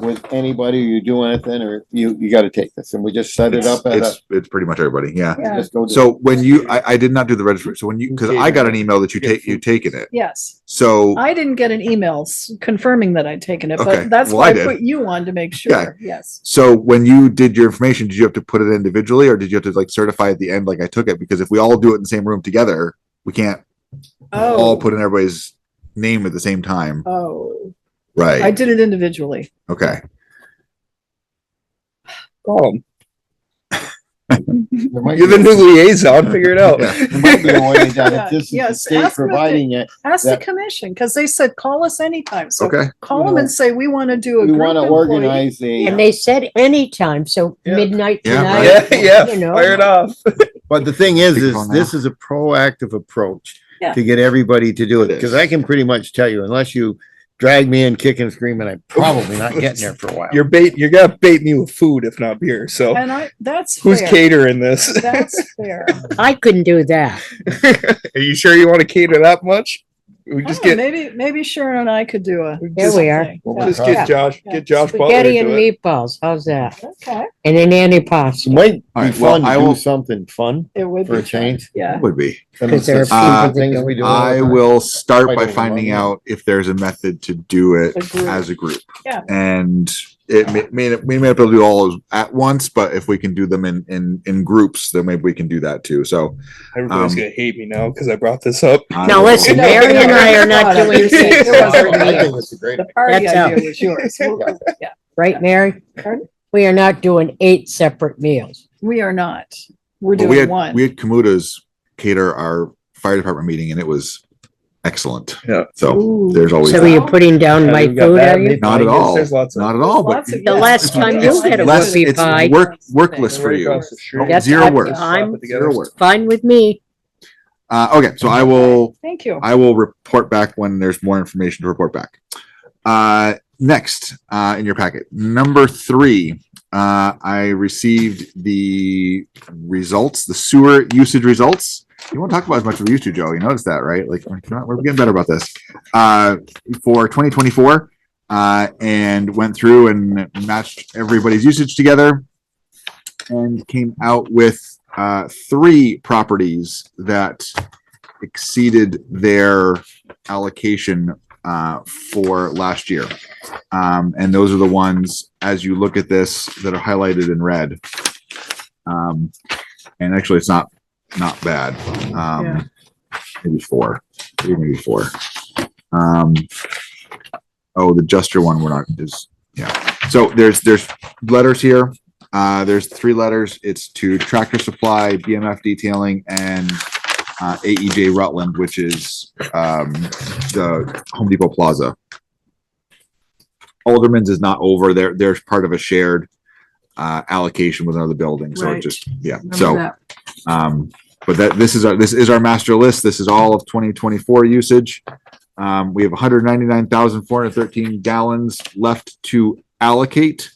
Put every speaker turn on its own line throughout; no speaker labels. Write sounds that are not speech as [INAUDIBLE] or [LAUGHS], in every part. with anybody, or you do anything, or you, you gotta take this, and we just set it up at a.
It's, it's pretty much everybody, yeah.
and just go do it.
So when you, I, I did not do the registry, so when you, cause I got an email that you take, you taken it,
Yes,
so,
I didn't get an email s- confirming that I'd taken it,
Okay,
but that's
well,
why
I
I
did.
put you on to make sure, yes.
so when you did your information, did you have to put it individually, or did you have to like certify at the end, like I took it, because if we all do it in the same room together, we can't all
Oh,
put in everybody's name at the same time,
oh, I
right?
did it individually.
Okay,
Call him.
There might
You're the
be-
new liaison. Figure it out. [LAUGHS]
Yeah.
there might be a [LAUGHS] way down
Yeah,
if this is the
yes,
state
ask them if they-
providing it,
Ask the
Yeah.
commission, because they said, call us anytime, so
okay,
call them and say, we want to do a
we
group
wanna
employee.
organize a.
And they said anytime, so
Yeah.
midnight
Yeah,
tonight.
Yeah, yeah.
You know.
Fire it off.
But the thing is,
Big
is
phone
this is a proactive approach
Yeah.
to get everybody to do it,
It
because
is.
I can pretty much tell you, unless you drag me in kicking and screaming, I'm probably not getting there for a while.
You're bait. You're gonna bait me with food if not beer. So
And I, that's
who's
fair,
catering this? [LAUGHS]
[LAUGHS]
that's fair.
I couldn't do that.
Are you sure you want to cater that much? We
I
just
don't
get
know, Maybe, maybe Sharon and I could do a.
There we are.
something.
Well,
Yeah.
my
just
God.
get Josh.
Yeah.
Get Josh Butler.
Spaghetti
to
and
do it.
meatballs, how's that?
Okay,
And an antipasto.
Might
All
be
right, well,
fun
I
to
will-
do something fun
it would
for
be,
a change.
yeah.
would be.
I mean,
'Cause there are
it's the
people
things
that
we do all the
I
time.
will start
Quite
by
overwhelming.
finding out if there's a method to do it
A group.
as a group.
Yeah.
And it may, may, we may have to do all at once, but if we can do them in, in, in groups, then maybe we can do that too. So.
Everybody's
Um,
gonna hate me now because I brought this up.
I
Now
will-
listen,
No,
Mary and I
[LAUGHS]
are not
no, no,
doing
no,
this.
no, no, no,
I think it's a great
The party
That's
idea was yours.
[LAUGHS]
We'll- Yeah,
Right, Mary?
Pardon?
We are not doing eight separate meals.
we are not. We're
But we
doing
had,
one.
we had Kamuta's cater our fire department meeting and it was excellent.
Yeah.
So there's always,
So are
that.
you putting down my
We've got
food,
that,
are you?
meat
not at
binders,
all,
There's lots of.
not at all, but
Lots of-
The last time you
it's
had a
less,
whoopie
it's
pie.
work, work less for
Right
you.
across the street.
That's Zero
up
work.
time.
Zero work.
Fine with me.
Uh, okay, so I will,
Thank you.
I will report back when there's more information to report back. Uh, next, uh, in your packet, number three, uh, I received the results, the sewer usage results. You won't talk about as much as we used to, Joe. You noticed that, right? Like, we're not- we're getting better about this. Uh, for twenty twenty-four, uh, and went through and matched everybody's usage together and came out with, uh, three properties that exceeded their allocation uh, for last year. Um, and those are the ones, as you look at this, that are highlighted in red. Um, and actually, it's not, not bad.
Yeah.
Um, maybe four, three, maybe four. Um, oh, the Juster one, we're not, is, yeah. So there's, there's letters here. Uh, there's three letters. It's to Tractor Supply, BMF Detailing, and uh, AEJ Rutland, which is um, the Home Depot Plaza. Alderman's is not over there. There's part of a shared uh, allocation with another building. So it
Right.
just, yeah.
Remember
So,
that.
um, but that, this is our, this is our master list. This is all of 2024 usage. Um, we have 199,413 gallons left to allocate.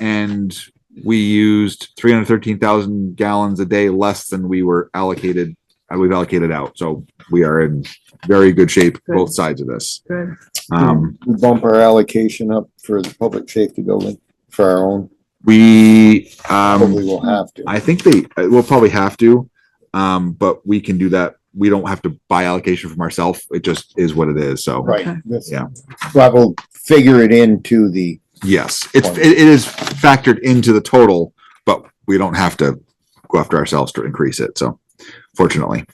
And we used 313,000 gallons a day less than we were allocated uh, we've allocated out. So we are in very good shape,
Good.
both sides of this.
Good.
Um,
We Bump our allocation up for the public safety building for our own,
we,
probably
um,
will have to.
I think they, uh, we'll probably have to, um, but we can do that. We don't have to buy allocation from ourselves. It just is what it is. So,
Right, this,
Yeah.
but we'll figure it into the,
yes, it's, it it is factored into the total, but we don't have to go after ourselves to increase it. So fortunately.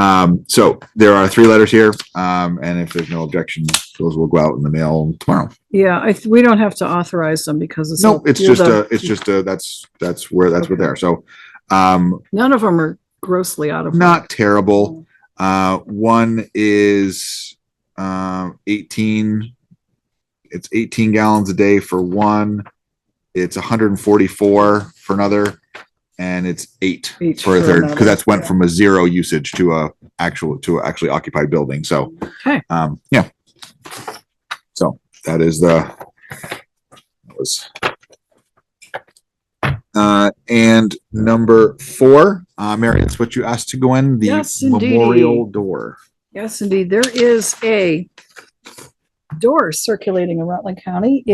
Um, so there are three letters here. Um, and if there's no objection, those will go out in the mail tomorrow.
Yeah, I, th- we don't have to authorize them because it's.
No, it's
you're
just
the-
a, it's just a, that's, that's where, that's where they are. So, um,
None of them are grossly out of.
not terrible. Uh, one is, um, eighteen. It's eighteen gallons a day for one. It's hundred and forty-four for another. And it's eight
Eight
for a
for
third,
another.
because that's went from a zero usage to a actual, to a actually occupied building. So,
Okay.
um, yeah. So that is the, that was. Uh, and number four, uh, Mary, that's what you asked to go in, the
Yes, indeedy.
memorial door.
Yes, indeed. There is a door circulating in Rutland County.